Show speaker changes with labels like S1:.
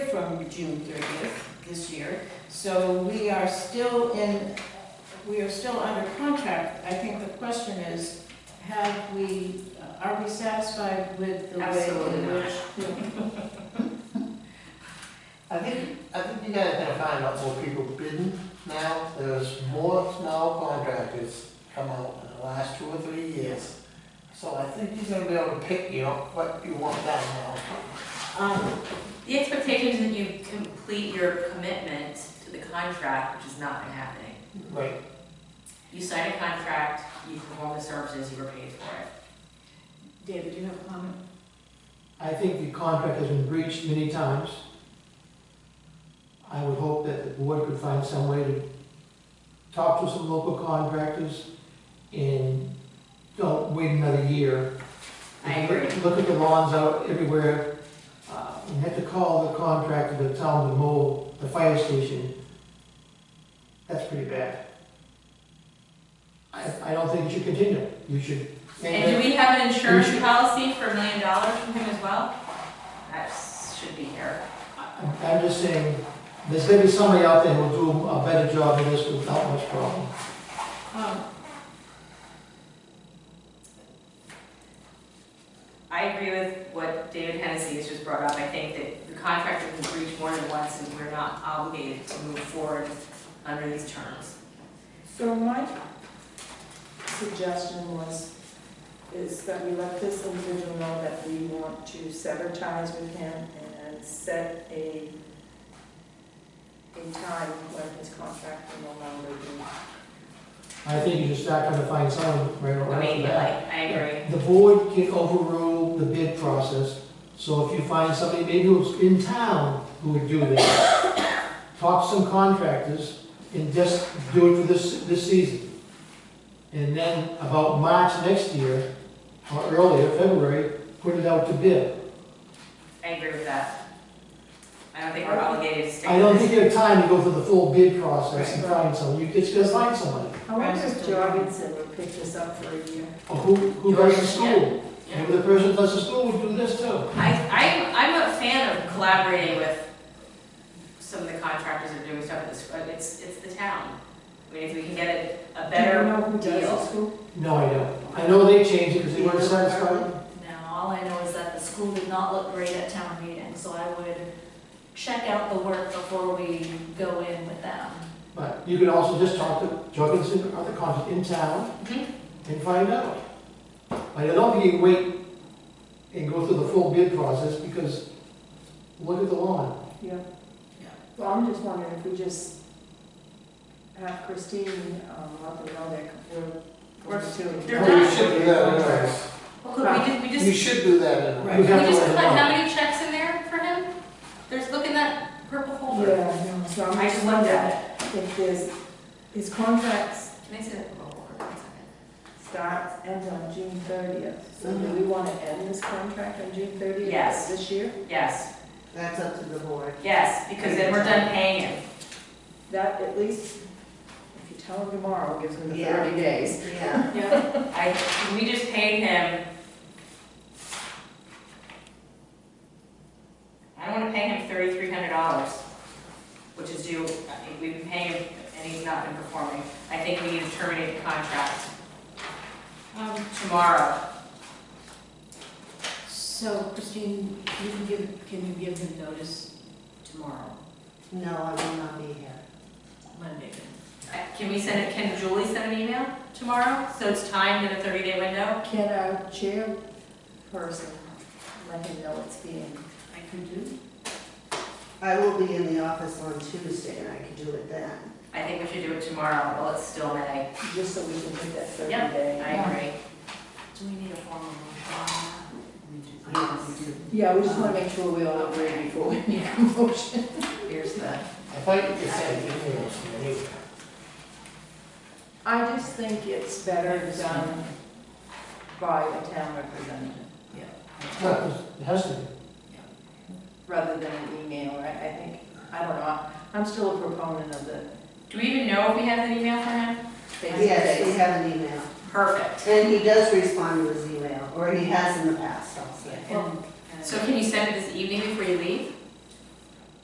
S1: from June thirtieth this year. So we are still in, we are still under contract. I think the question is, have we, uh, are we satisfied with the way? in
S2: Absolutely not.
S1: which-
S3: I think, I think you guys are gonna find out more people bidding now, there's more small contractors come out in the last two or three years. So I think you're gonna be able to pick, you know, what you want down now.
S2: Um, The expectation is that you complete your commitment to the contract, which is not been happening.
S3: Right,
S2: You sign a contract, you perform the services, you were paid for it.
S1: David, do you have a comment?
S4: I think the contract has been breached many times. I would hope that the board could find some way to talk to some local contractors and don't wait another year.
S2: I agree.
S4: Look at the lawns out everywhere. Uh, You have to call the contractor to tell them to mow the fire station. That's pretty bad. I, I don't think it should continue. You should.
S2: And do we have an insurance
S4: Mm-hmm.
S2: policy for a million dollars from him as well? That s- should be here.
S4: I'm I'm just saying, there's gonna be somebody out there who'll do a better job than this without much problem.
S1: Um,
S2: I agree with what David Hennessy has just brought up. I think that the contract has been breached more than once and we're not obligated to move forward under these terms.
S5: So my suggestion was, is that we let this individual know that we want to sever ties with him and set a, a time when his contract will no longer be.
S4: I think you just start trying to find someone right
S2: I
S4: right off
S2: mean,
S4: the
S2: like,
S4: bat.
S2: I agree.
S4: The board can overrule the bid process, so if you find somebody maybe who's in town who would do that, talk to some contractors and just do it for this, this season. And then about March next year, or earlier, February, put it out to bid.
S2: I agree with that. I don't think we're obligated to stick
S4: I don't
S2: with
S4: think
S2: this.
S4: you have time to go through the full bid process and find someone, you just gotta find somebody.
S5: I wonder if Jorgensen would pick this up for a year.
S4: Or who, who does the school?
S2: Yeah.
S4: Maybe the person who does the school would do this too.
S2: I, I'm, I'm a fan of collaborating with some of the contractors that are doing stuff at this, but it's, it's the town. I mean, if we can get a, a
S5: Do you
S2: better,
S5: know who does
S2: deal.
S5: the school?
S4: No, I don't. I know they changed it because they weren't satisfied.
S6: Now, all I know is that the school did not look great at town meeting, so I would check out the work before we go in with them.
S4: But you can also just talk to Jorgensen or other contacts in town
S2: Mhm.
S4: and find out. But I don't think you wait and go through the full bid process because look at the lawn.
S5: Yeah.
S1: Yeah.
S5: Well, I'm just wondering if we just have Christine, um, let them know that we're,
S2: We're-
S5: we're doing.
S2: they're
S3: Well, you
S2: done.
S3: should do that anyways,
S2: well, could we did, we
S3: you
S2: just,
S3: should do that anyways.
S1: Right.
S4: You
S2: we
S4: have to
S2: just
S4: let them
S2: put
S4: know.
S2: how many checks in there for him? There's, look in that purple folder.
S5: Yeah, no, so
S2: I
S5: I'm
S2: just looked
S5: just wondering
S2: at
S5: if there's, his contracts
S2: it. Can I see that purple folder for a second?
S5: starts, ends on June thirtieth. So do we want to end this contract on June thirtieth?
S2: Yes.
S5: This year?
S2: Yes,
S7: That's up to the board.
S2: yes, because then we're done paying him.
S5: That at least, if you tell him tomorrow, it gives him the
S7: Yeah.
S5: thirty days.
S7: Yeah.
S2: I, we just paid him. I don't wanna pay him thirty-three hundred dollars, which is due, we've been paying him and he's not been performing. I think we need to terminate the contract
S1: Um,
S2: tomorrow.
S1: So Christine, you can give, can you give him notice tomorrow,
S7: No, I will not be here.
S1: Monday?
S2: Uh, Can we send it, can Julie send an email tomorrow? So it's timed in a thirty-day window?
S5: Can our chairperson let him know it's being,
S1: I could do.
S7: I will be in the office on Tuesday and I can do it then.
S2: I think we should do it tomorrow, while it's still May.
S5: just so we can hit that thirty
S2: Yep,
S5: day?
S2: I agree.
S6: Do we need a formal motion on that?
S5: Yeah, we just want to make sure we all agree before we make a motion.
S2: Here's the.
S3: I thought you could send emails from the meeting.
S5: I just think it's better done by a town representative.
S4: It has to be.
S5: rather than an email, right? I think, I don't know, I'm still a proponent of the
S2: Do we even know if we have an email for him?
S7: Yes, we
S5: face-to-face.
S7: have an email.
S2: Perfect.
S7: And he does respond to his email, or he has in the past, I'll say.
S2: So can you send it this evening before you leave?